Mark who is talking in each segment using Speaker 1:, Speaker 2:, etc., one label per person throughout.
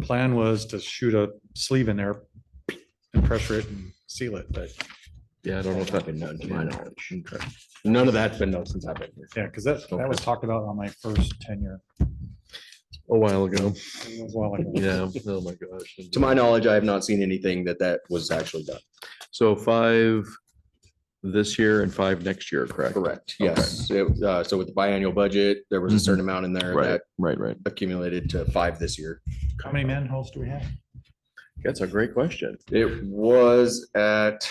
Speaker 1: plan was to shoot a sleeve in there and pressure it and seal it, but
Speaker 2: Yeah, I don't know if I've been known to my knowledge. None of that's been known since I've been here.
Speaker 1: yeah, because that, that was talked about on my first tenure.
Speaker 2: A while ago.
Speaker 1: It was a while ago.
Speaker 2: Yeah. Oh, my gosh.
Speaker 3: To my knowledge, I have not seen anything that that was actually done.
Speaker 2: So five this year and five next year, correct?
Speaker 3: Correct.
Speaker 2: Okay. Mm-hmm.
Speaker 3: Yes. It- uh, So with the biannual budget, there was a certain amount in there
Speaker 2: Right,
Speaker 3: that
Speaker 2: right, right.
Speaker 3: accumulated to five this year.
Speaker 1: How many manholes do we have?
Speaker 2: That's a great question.
Speaker 3: It was at,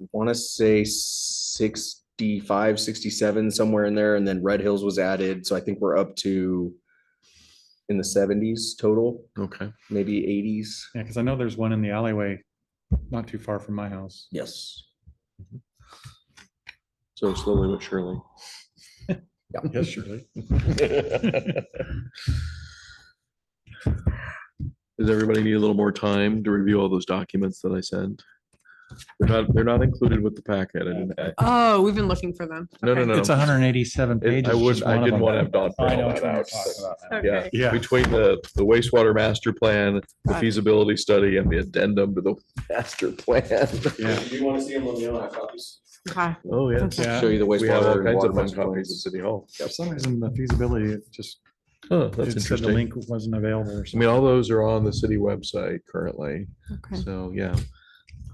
Speaker 3: I want to say 65, 67, somewhere in there. And then Red Hills was added. So I think we're up to in the seventies total,
Speaker 2: Okay.
Speaker 3: maybe eighties.
Speaker 1: Yeah, because I know there's one in the alleyway, not too far from my house.
Speaker 3: Yes.
Speaker 2: So slowly but surely.
Speaker 1: Yes, surely.
Speaker 2: Does everybody need a little more time to review all those documents that I sent? They're not, they're not included with the packet. I didn't, I-
Speaker 4: Oh, we've been looking for them.
Speaker 2: no, no, no.
Speaker 1: It's hundred and eighty-seven
Speaker 2: It-
Speaker 1: pages.
Speaker 2: I would,
Speaker 1: just
Speaker 2: I
Speaker 1: one of
Speaker 2: didn't
Speaker 1: them.
Speaker 2: want to have Don.
Speaker 1: I know
Speaker 2: fill
Speaker 1: which one
Speaker 2: that
Speaker 1: you're
Speaker 2: out,
Speaker 1: talking
Speaker 2: so-
Speaker 1: about now.
Speaker 2: Yeah,
Speaker 4: Okay.
Speaker 1: Yeah.
Speaker 2: between the, the wastewater master plan, the
Speaker 4: Got it.
Speaker 2: feasibility study and the addendum to the master plan.
Speaker 1: Yeah,
Speaker 3: Do you want to see them on the other copies?
Speaker 4: Okay.
Speaker 2: Oh, yeah.
Speaker 4: Okay.
Speaker 1: yeah.
Speaker 3: Show you the
Speaker 2: We have all
Speaker 3: wastewater. and
Speaker 2: kinds
Speaker 3: water
Speaker 2: of fun
Speaker 3: master
Speaker 2: copies at
Speaker 3: plans.
Speaker 2: City Hall.
Speaker 1: For some reason, the feasibility, it just,
Speaker 2: Huh,
Speaker 1: it
Speaker 2: that's
Speaker 1: said the
Speaker 2: interesting.
Speaker 1: link wasn't available or
Speaker 2: I
Speaker 1: something.
Speaker 2: mean, all those are on the city website currently.
Speaker 4: Okay.
Speaker 2: So, yeah,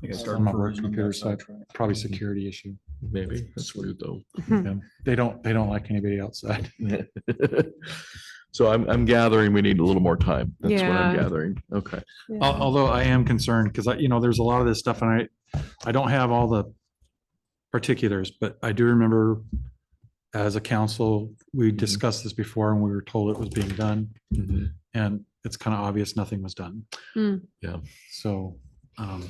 Speaker 1: It's on my work computer, so Probably security issue.
Speaker 2: maybe. That's weird though.
Speaker 4: Hmm.
Speaker 1: Yeah. They don't, they don't like anybody outside.
Speaker 2: So I'm, I'm gathering, we need a little more time. That's what I'm
Speaker 4: Yeah.
Speaker 2: gathering. Okay.
Speaker 1: Al-
Speaker 4: Oh,
Speaker 1: Although I am concerned because I, you know, there's a lot of this stuff and I, I don't have all the particulars, but I do remember as a council, we
Speaker 2: Mhm.
Speaker 1: discussed this before and we were told it was being done
Speaker 2: Mhm.
Speaker 1: and it's kind of obvious nothing was done.
Speaker 4: Hmm.
Speaker 2: Yeah.
Speaker 1: So, um,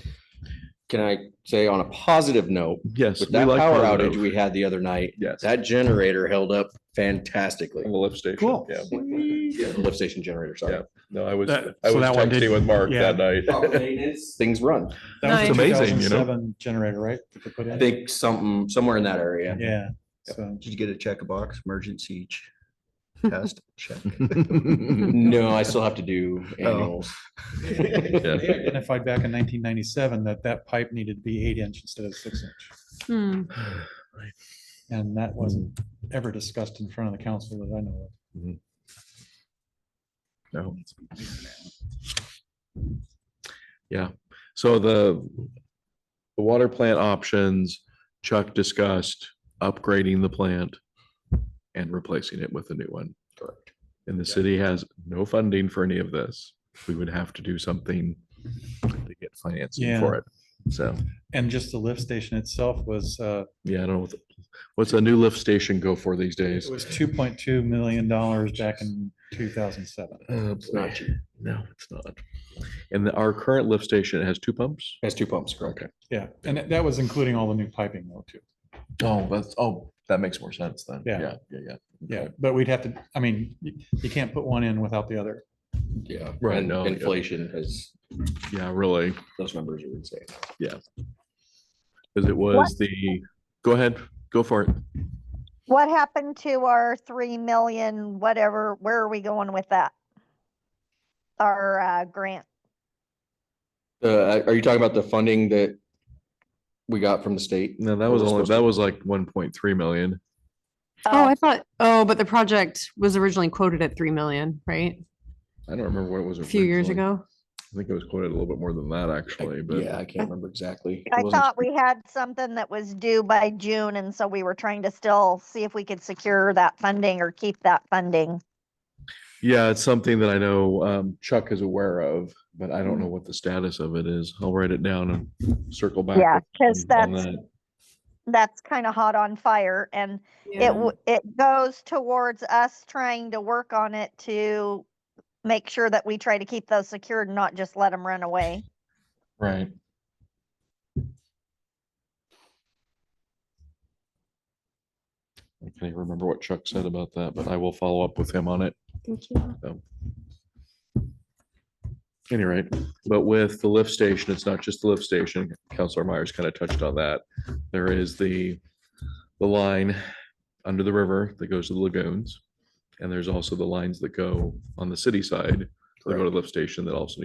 Speaker 3: Can I say on a positive note,
Speaker 2: Yes.
Speaker 3: with
Speaker 2: we
Speaker 3: that
Speaker 2: like
Speaker 3: power
Speaker 2: Colorado.
Speaker 3: outage we had the other night,
Speaker 2: Yes.
Speaker 3: that generator held up fantastically.
Speaker 2: On the lift station.
Speaker 1: Cool.
Speaker 2: Yeah.
Speaker 4: oh.
Speaker 3: Yeah, the lift station generator, sorry.
Speaker 2: No, I was,
Speaker 1: That-
Speaker 2: I
Speaker 1: so
Speaker 2: was
Speaker 1: that one
Speaker 2: texting
Speaker 1: did-
Speaker 2: with Mark
Speaker 1: yeah.
Speaker 2: that night.
Speaker 3: Things run.
Speaker 1: that was
Speaker 4: Nice.
Speaker 1: the
Speaker 2: Amazing, you know?
Speaker 1: 2007 Generator, right? that they put
Speaker 3: I
Speaker 1: in?
Speaker 3: think something, somewhere in that area.
Speaker 1: Yeah. So,
Speaker 5: Did you get a check a box, emergency ch- test check?
Speaker 3: No, I still have to do
Speaker 2: Oh.
Speaker 3: annuals.
Speaker 2: Yeah.
Speaker 1: they identified back in nineteen ninety-seven that that pipe needed to be eight inch instead of six inch.
Speaker 4: Hmm.
Speaker 1: And that wasn't ever discussed in front of the council that I know
Speaker 2: No. Yeah, so the, the water plant options, Chuck discussed upgrading the plant and replacing it with a new one.
Speaker 3: Correct.
Speaker 2: And the city has no funding for any of this. We would have to do something to get financing
Speaker 1: Yeah.
Speaker 2: for it. So,
Speaker 1: of. And just the lift station itself was, uh,
Speaker 2: yeah, I don't know, what the- what's a new lift station go for these
Speaker 1: it
Speaker 2: days?
Speaker 1: was two point two million dollars back in two thousand seven.
Speaker 2: It's
Speaker 3: not
Speaker 2: cheap. Uh, No, it's not. And the- our current lift station has two pumps?
Speaker 3: Has two pumps, correct?
Speaker 1: Yeah, and that- that was including all the new piping though too.
Speaker 2: Oh, that's, oh, that makes more sense then.
Speaker 1: Yeah.
Speaker 2: Yeah, yeah, yeah.
Speaker 1: Yeah, but we'd have to, I mean, you, you can't put one in without the other.
Speaker 3: Yeah.
Speaker 2: Right,
Speaker 3: And
Speaker 2: no, yeah.
Speaker 3: inflation has,
Speaker 2: Yeah, really,
Speaker 3: those numbers are insane.
Speaker 2: because it was the, go ahead, go for it.
Speaker 6: What happened to our three million, whatever, where are we going with that? Our uh, grant,
Speaker 3: Uh, are you talking about the funding that we got from the state?
Speaker 2: No, that
Speaker 3: What
Speaker 2: was
Speaker 3: was
Speaker 2: only,
Speaker 3: supposed
Speaker 2: that
Speaker 3: to-
Speaker 2: was like one point three million.
Speaker 4: Oh, I
Speaker 6: Oh,
Speaker 4: thought, oh, but the project was originally quoted at 3 million, right?
Speaker 2: I don't remember what it was.
Speaker 4: A few years
Speaker 2: originally.
Speaker 4: ago.
Speaker 2: I think it was quoted a little bit more than that, actually, but.
Speaker 3: Yeah, I can't remember exactly. It
Speaker 6: I
Speaker 3: wasn't-
Speaker 6: thought we had something that was due by June, and so we were trying to still see if we could secure that funding or keep that funding.
Speaker 2: Yeah, it's something that I know um, Chuck is aware of, but I don't know
Speaker 4: Mm-hmm.
Speaker 2: what the status of it is. I'll write it down and circle back.
Speaker 6: Yeah,
Speaker 2: with
Speaker 6: because
Speaker 2: you on
Speaker 6: that's,
Speaker 2: that.
Speaker 6: that's kind of hot on fire, and it,
Speaker 4: Yeah.
Speaker 6: w- it goes towards us trying to work on it to make sure that we try to keep those secured and not just let them run away.
Speaker 2: Right. I can't even remember what Chuck said about that, but I will follow up with him on it.
Speaker 4: Thank you.
Speaker 2: Any rate, but with the lift station, it's not just the lift station. Counselor Myers kind of touched on that. There is the, the line under the river that goes to the lagoons. And there's also the lines that go on the city side They go to the lift station that also